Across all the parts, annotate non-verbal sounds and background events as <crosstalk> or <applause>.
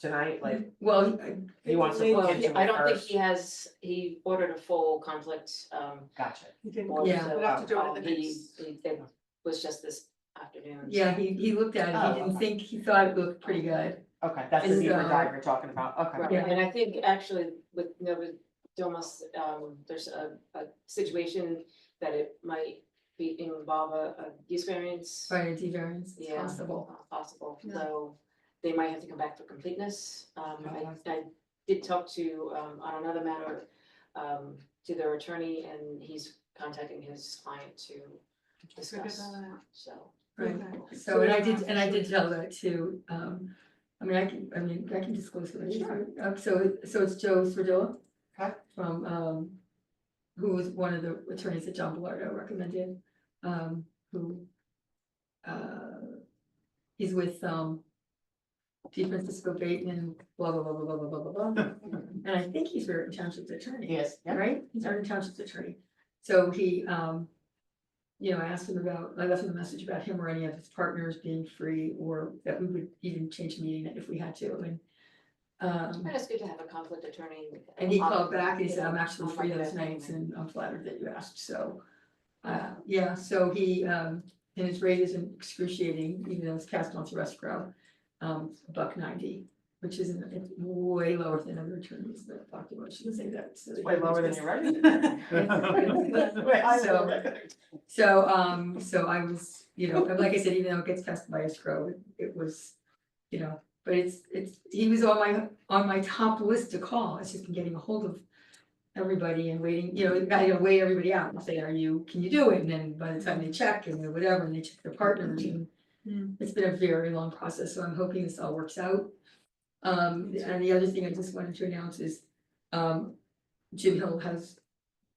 tonight, Mm-hmm. like, Well, he wants to well, look into he- it I don't think first? he has, he ordered a full conflict, um, Gotcha. You didn't go, board, Yeah. so, we'll have to do it um, at the he- next. he- It was just this afternoon. Yeah, he, he looked at it, he Oh, didn't okay. think, he thought it looked pretty good. Okay, that's the And, deeper uh, dive we're talking about, Right, okay. Yeah. and I think actually with Nova Domus, um, there's a, a situation that it might be involve a, a use variance. Prior D variance, it's Yeah. possible. uh, Possible, Yeah. so they might have to come back for completeness. Um, I, Okay. I did talk to, um, on another matter, um, to their attorney and he's contacting his client to Figure discuss, that out. so. Right, Okay. so and I did, and I did tell that too, um, I mean, I can, I mean, I can disclose who it is, Sure. uh, so, so it's Joe Swerdilla. Okay. From, um, who was one of the attorneys that John Bellardo recommended, um, who. Uh, he's with, um. D. Francisco Bateman, blah, blah, blah, blah, blah, blah, blah, <laughs> blah, blah, and I think he's Raritan Township's attorney Yes, yeah, right? He's our township's attorney. So he, um, you know, I asked him about, I left him a message about him or any of his partners being free or that we would even change the meeting if we had to and. Um, And it's good to have a conflict attorney. and he on- called back and he said, I'm you know, actually on free like those that. nights and I'm flattered that you asked, so. Uh, yeah, so he, um, and his rate isn't excruciating, even though it's cast on through escrow, um, a buck ninety. Which is it's way lower than other attorneys that talk about, shouldn't say that. so- way lower than <laughs> your revenue. So- So, um, so I was, you know, and like I said, even though it gets passed by escrow, it- it was, you know, but it's, it's, he was on my, on my top list to call, it's just been getting a hold of everybody and waiting, you know, I had to weigh everybody out and say, are you, can you do it? And then by the time they check and then whatever, and they check their partners and Hmm. it's been a very long process, so I'm hoping this all works out. Um, and the other thing I just wanted to announce is, um, Jim Hill has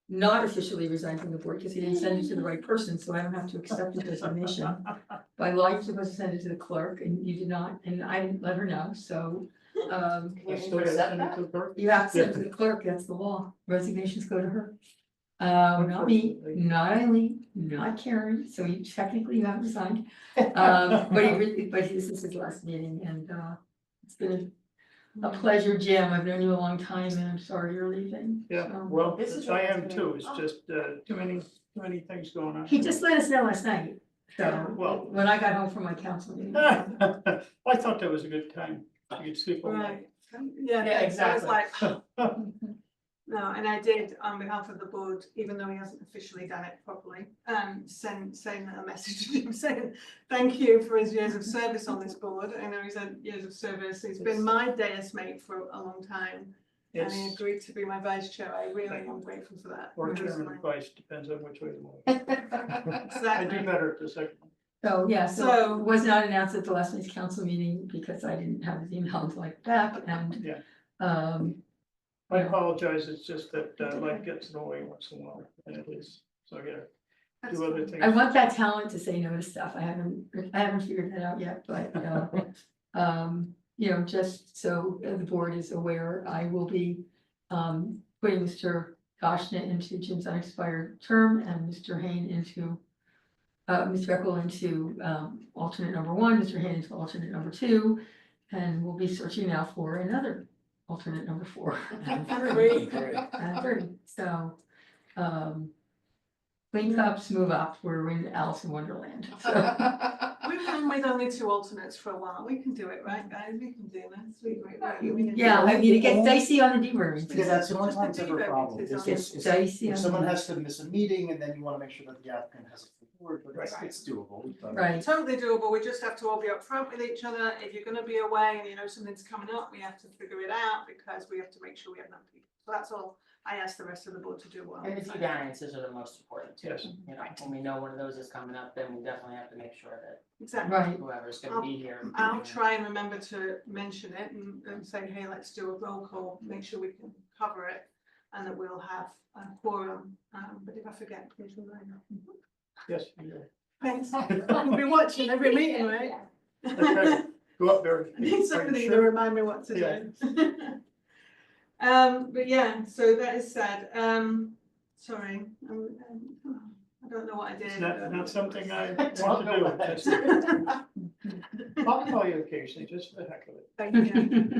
not officially resigned from the board because he didn't send it to the right person, so I don't have to accept the resignation. By law, you're supposed to send it to the clerk and you did not, and I didn't let her know, so, um, Can you send intercept it to the clerk? you have to send it to the clerk, that's the law. Resignations go to her. Um, not me, Unfortunately. not Eileen, not Karen, so you technically you have resigned. Um, but he really, but this is his last meeting and, uh, it's been a pleasure, Jim. I've known you a long time and I'm sorry you're leaving. Yeah, so. well, This is I what I was am gonna- too, it's just, uh, too many, too many things going on. He just let us know last night, so, Yeah, well- when I got home from my council <laughs> meeting. I thought that was a good time, you could sleep all night. Right, yeah, that's- I was exactly. like, <laughs> <laughs> no, and I did on behalf of the board, even though he hasn't officially done it properly, um, send, send a <laughs> message to him saying, thank you for his years of service on this board, I know he's had years of service, he's been my deus mate for a long time, and he It's, agreed to be my vice chair, I really am grateful for that. or chairman advice, depends on which way the wind. I do Exactly, better at the second. one. So, yeah, so So- it was not announced at the last night's council meeting because I didn't have his emails like back and. Yeah. Um, I Yeah. apologize, it's just that uh, life gets in the way once in a while, and at least, so I gotta That's do other fine. things. I want that talent to say no to stuff. I haven't, I haven't figured that out yet, but, uh, <laughs> um, you know, just so the board is aware, I will be, um, putting Mr. Goshna into Jim's unexpired term and Mr. Hain into, uh, Ms. Reckle into, um, alternate number one, Mr. Hain into alternate number two, and we'll be searching now for another alternate number four. and three and thirty, so, um. Clean cups move up, we're in Alice in Wonderland, so, We've been with only two alternates for a while, we can do it, right, guys, we can do this, we, we, we. can- yeah, I mean, it gets dicey on the D variance. Because Because that's the only just the time it's ever a feedback problem, is is on- It's it's, it's, dicey if on someone the, has to miss a meeting and then you wanna make sure that the applicant has a full board, but it's, Right. it's doable, but. right, Totally doable, we just have to all be upfront with each other, if you're gonna be away and you know something's coming up, we have to figure it out, because we have to make sure we have enough people, so that's all I ask the rest of the board to do well. And the T variances are the most important too, Yes. you know, when we know one of those is coming up, then we definitely have to make sure Exactly, that right, whoever's gonna be here. you I'll know. try and remember to mention it and, and say, hey, let's do a roll call, make sure we can cover it, and that we'll have a quorum, um, but if I forget, please remind me. Yes, you do. Thanks, I'll be watching every meeting, right? Okay. go up there. I need somebody to remind me what to do. <laughs> Um, but yeah, so that is sad, um, sorry, um, um, I don't know what I did. It's not, not something <laughs> I don't want <laughs> know what I to do, just, I'll call you occasionally, just for the heck of it. Thank you.